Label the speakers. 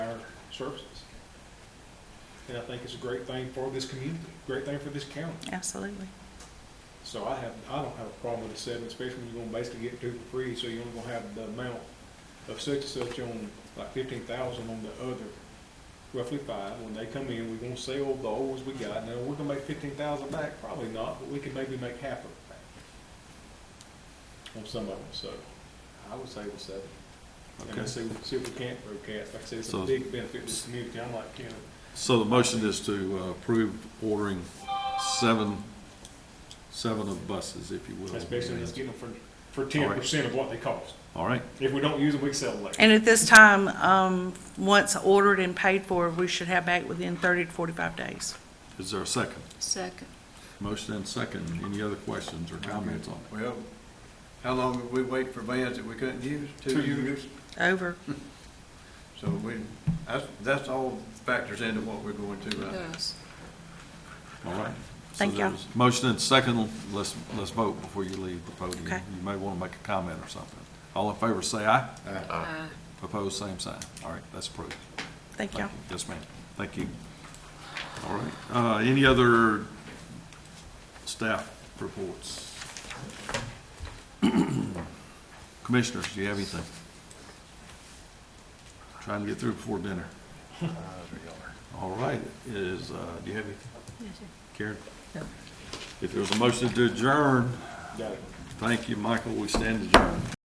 Speaker 1: services. And I think it's a great thing for this community, great thing for this county.
Speaker 2: Absolutely.
Speaker 1: So I have, I don't have a problem with the seven, especially when you're gonna basically get two for free, so you're only gonna have the amount of such and such on, like fifteen thousand on the other, roughly five, when they come in, we're gonna sell the old ones we got, now, we're gonna make fifteen thousand back, probably not, but we can maybe make half of it back. On some of them, so, I would say with seven. And
Speaker 3: Okay.
Speaker 1: let's see, see if we can't broadcast, like I said, it's a
Speaker 3: So-
Speaker 1: big benefit to this community, I'm like, you know,
Speaker 3: So the motion is to uh, approve ordering seven, seven of buses, if you will.
Speaker 1: especially let's get them for, for
Speaker 3: All
Speaker 1: ten
Speaker 3: right.
Speaker 1: percent of what they cost.
Speaker 3: All right,
Speaker 1: If we don't use them, we can sell them later.
Speaker 2: And at this time, um, once ordered and paid for, we should have back within thirty to forty-five days.
Speaker 3: is there a second?
Speaker 4: Second.
Speaker 3: Motion and second, any other questions or comments on it?
Speaker 5: Well, how long did we wait for vans that we couldn't use?
Speaker 1: Two years.
Speaker 2: Over.
Speaker 5: So we, that's, that's all factors into what we're going to right now.
Speaker 4: Yes.
Speaker 3: All right. So
Speaker 2: Thank y'all.
Speaker 3: there's Motion and second, let's, let's vote before you leave the podium.
Speaker 2: Okay.
Speaker 3: You may want to make a comment or something. All in favor, say aye.
Speaker 4: Aye.
Speaker 3: Opposed, same sign. All right, that's approved.
Speaker 2: Thank y'all.
Speaker 3: Yes, ma'am. Thank you. All right, uh, any other staff reports? Commissioners, do you have anything? Trying to get through before dinner. All right, is, uh, do you have anything? Karen? If there's a motion to adjourn,
Speaker 1: Got it.
Speaker 3: thank you, Michael, we stand adjourned.